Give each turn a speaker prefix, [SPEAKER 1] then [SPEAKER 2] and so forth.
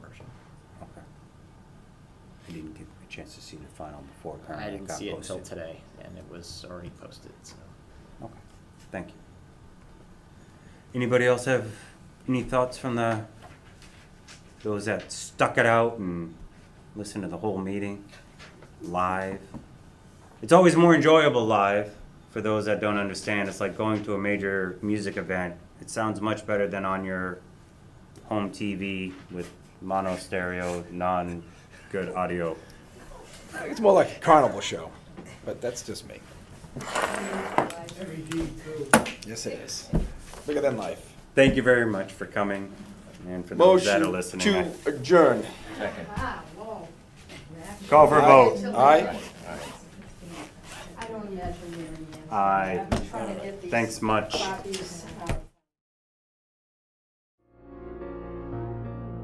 [SPEAKER 1] I didn't get a chance to see the final before it got posted.
[SPEAKER 2] I didn't see it until today, and it was already posted, so.
[SPEAKER 1] Okay, thank you. Anybody else have any thoughts from the, those that stuck it out and listened to the whole meeting live? It's always more enjoyable live, for those that don't understand, it's like going to a major music event. It sounds much better than on your home TV with mono stereo, non-good audio.
[SPEAKER 3] It's more like a carnival show, but that's just me. Yes, it is. Bigger than life.
[SPEAKER 1] Thank you very much for coming, and for those that are
[SPEAKER 3] Motion
[SPEAKER 1] listening. I-
[SPEAKER 3] to adjourn.
[SPEAKER 4] Wow, whoa.
[SPEAKER 1] Call for a vote.
[SPEAKER 3] Aye.
[SPEAKER 4] I don't imagine you're in.
[SPEAKER 1] Aye.
[SPEAKER 4] I've been trying to get these
[SPEAKER 1] Thanks much.
[SPEAKER 4] copies, uh,